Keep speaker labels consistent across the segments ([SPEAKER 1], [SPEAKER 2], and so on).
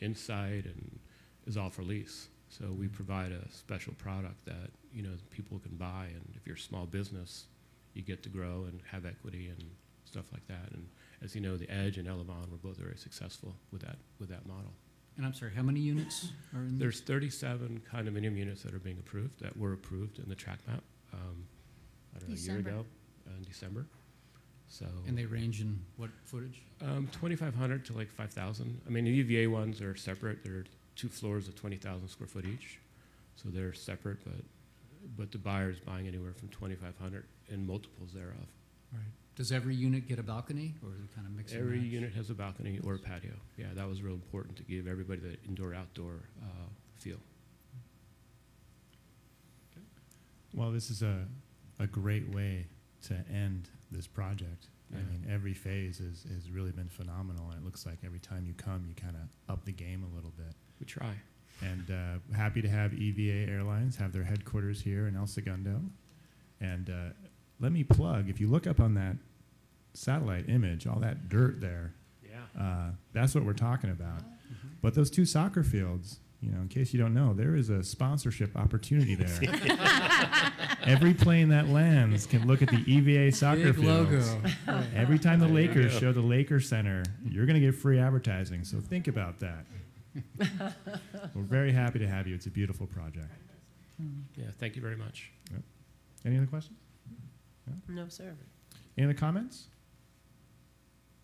[SPEAKER 1] inside and is all for lease. So we provide a special product that, you know, people can buy, and if you're a small business, you get to grow and have equity and stuff like that. And as you know, the Edge and Elevon were both very successful with that, with that model.
[SPEAKER 2] And I'm sorry, how many units are in?
[SPEAKER 1] There's 37 condominium units that are being approved, that were approved in the track map, um, I don't know, a year
[SPEAKER 3] December.
[SPEAKER 1] ago, uh, in December. So,
[SPEAKER 2] And they range in what footage?
[SPEAKER 1] um, 2,500 to like 5,000. I mean, the UVA ones are separate. They're two floors of 20,000 square foot each. So they're separate, but, but the buyer's buying anywhere from 2,500 and multiples thereof.
[SPEAKER 2] Right. Does every unit get a balcony or is it kind of mixed? and
[SPEAKER 1] Every
[SPEAKER 2] match?
[SPEAKER 1] unit has a balcony or a patio. Yeah, that was real important to give everybody the indoor-outdoor uh, feel.
[SPEAKER 4] Well, this is a, a great way to end this project. I
[SPEAKER 1] Yeah.
[SPEAKER 4] mean, every phase is, has really been phenomenal, and it looks like every time you come, you kind of up the game a little bit.
[SPEAKER 1] We try.
[SPEAKER 4] And uh, happy to have EVA Airlines have their headquarters here in El Segundo. And uh, let me plug if you look up on that satellite image, all that dirt there,
[SPEAKER 1] Yeah.
[SPEAKER 4] uh, that's what we're talking about.
[SPEAKER 1] Mm-hmm.
[SPEAKER 2] Mhm.
[SPEAKER 4] But those two soccer fields, you know, in case you don't know, there is a sponsorship opportunity there. Every plane that lands can look at the EVA soccer
[SPEAKER 2] Big
[SPEAKER 4] fields.
[SPEAKER 2] logo. Right.
[SPEAKER 4] Every time the
[SPEAKER 1] There you
[SPEAKER 4] Lakers
[SPEAKER 1] go.
[SPEAKER 4] show the Laker Center, you're going to get free advertising. So think about that. We're very happy to have you. It's a beautiful project.
[SPEAKER 1] Yeah, thank you very much.
[SPEAKER 4] Any other questions?
[SPEAKER 3] No, sir.
[SPEAKER 4] Any other comments?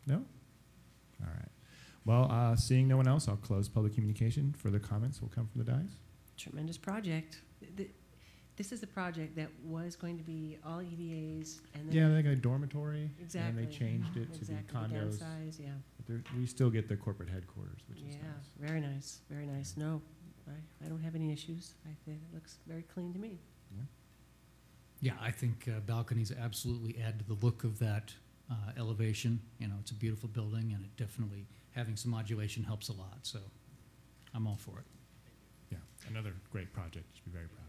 [SPEAKER 4] No? All right. Well, uh, seeing no one else, I'll close public communication. Further comments will come from the dais.
[SPEAKER 3] Tremendous project. Th- This is a project that was going to be all EVAs and
[SPEAKER 4] Yeah,
[SPEAKER 3] then
[SPEAKER 4] they got a dormitory, and
[SPEAKER 3] exactly.
[SPEAKER 4] then they changed it to be
[SPEAKER 3] exactly the
[SPEAKER 4] condos.
[SPEAKER 3] downsize, yeah.
[SPEAKER 4] But they're- we still get the corporate headquarters, which is
[SPEAKER 3] Yeah,
[SPEAKER 4] nice.
[SPEAKER 3] very nice, very nice. No, I, I don't have any issues. I think it looks very clean to me.
[SPEAKER 2] Yeah, I think uh, balconies absolutely add to the look of that uh, elevation. You know, it's a beautiful building, and it definitely, having some modulation helps a lot, so I'm all for it.
[SPEAKER 4] Yeah, another great project. You should be very proud. of.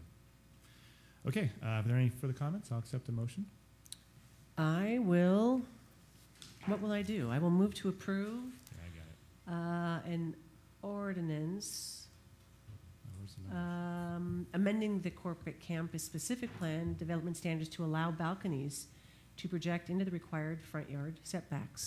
[SPEAKER 4] Okay, uh, are there any further comments? I'll accept the motion.
[SPEAKER 3] I will, what will I do? I will move to approve,
[SPEAKER 4] Yeah, I got it.
[SPEAKER 3] uh, an ordinance
[SPEAKER 4] Oh, where's the
[SPEAKER 3] Uh,
[SPEAKER 4] number?
[SPEAKER 3] Um, amending the corporate campus specific plan development standards to allow balconies to project into the required front yard setbacks.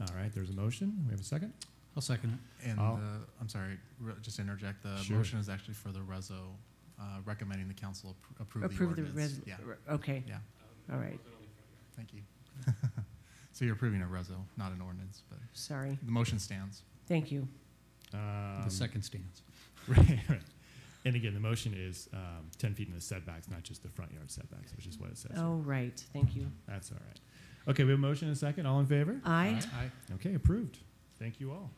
[SPEAKER 4] All right, there's a motion. We have a second.
[SPEAKER 2] I'll second it.
[SPEAKER 5] And
[SPEAKER 4] I'll-
[SPEAKER 5] uh, I'm sorry, re- just interject. The
[SPEAKER 4] Sure.
[SPEAKER 5] motion is actually for the reso uh, recommending the council appro- approve,
[SPEAKER 3] Approve
[SPEAKER 5] the
[SPEAKER 3] the
[SPEAKER 5] ordinance.
[SPEAKER 3] res,
[SPEAKER 5] yeah,
[SPEAKER 3] okay,
[SPEAKER 5] yeah.
[SPEAKER 3] all right,
[SPEAKER 5] Thank you. so you're approving a reso, not an ordinance, but
[SPEAKER 3] sorry,
[SPEAKER 5] the motion stands.
[SPEAKER 3] thank you.
[SPEAKER 4] Um,
[SPEAKER 2] uh, The second stands.
[SPEAKER 4] Right, right. And again, the motion is um, 10 feet in the setbacks, not just the front yard setbacks, which is what it says. here.
[SPEAKER 3] Oh, right, thank you.
[SPEAKER 4] That's all right. Okay, we have a motion and a second. All in favor?
[SPEAKER 3] Aye,
[SPEAKER 2] Aye.
[SPEAKER 4] Okay, approved. Thank you all.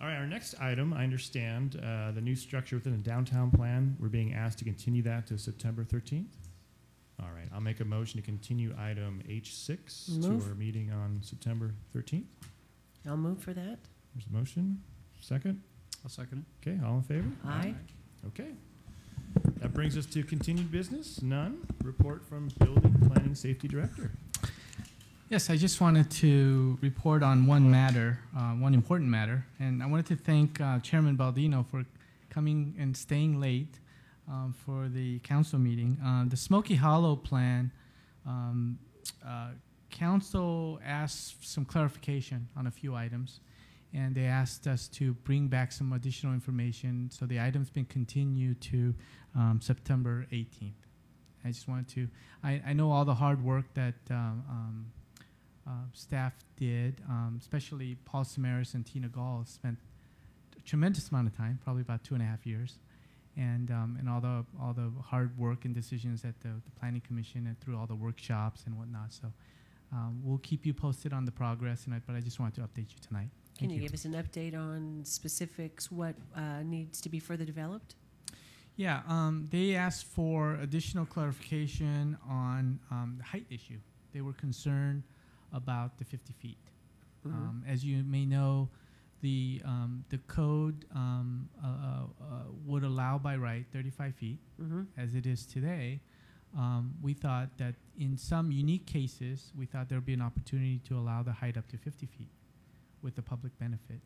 [SPEAKER 4] All right, our next item, I understand, uh, the new structure within the downtown plan, we're being asked to continue that to September 13th? All right, I'll make a motion to continue item H6
[SPEAKER 3] Move.
[SPEAKER 4] to our meeting on September 13th.
[SPEAKER 3] I'll move for that.
[SPEAKER 4] There's a motion, second.
[SPEAKER 2] I'll second it.
[SPEAKER 4] Okay, all in favor?
[SPEAKER 5] Uh,
[SPEAKER 3] Aye,
[SPEAKER 4] Okay. That brings us to continued business, none. Report from Building Planning Safety Director.
[SPEAKER 6] Yes, I just wanted to report on one matter, uh, one important matter, and I wanted to thank uh, Chairman Baldino for coming and staying late um, for the council meeting. Uh, the Smoky Hollow plan, um, uh, council asked some clarification on a few items, and they asked us to bring back some additional information. So the item's been continued to um, September 18th. I just wanted to. I, I know all the hard work that um, um, uh, staff did, um, especially Paul Samaras and Tina Gall spent a tremendous amount of time, probably about two and a half years, and um, and all the all the hard work and decisions at the, the planning commission and through all the workshops and whatnot. So um, we'll keep you posted on the progress, and I, but I just wanted to update you tonight.
[SPEAKER 3] can
[SPEAKER 6] Thank
[SPEAKER 3] you give us an update on specifics, what, uh, needs to be further developed?
[SPEAKER 6] Yeah, um, they asked for additional clarification on um, the height issue. They were concerned about the 50 feet.
[SPEAKER 3] Mhm.
[SPEAKER 6] Um, as you may know, the um, the code um, uh, uh, uh, would allow by right 35 feet,
[SPEAKER 3] Mhm.
[SPEAKER 6] as it is today. Um, we thought that in some unique cases, we thought there would be an opportunity to allow the height up to 50 feet with the public benefit.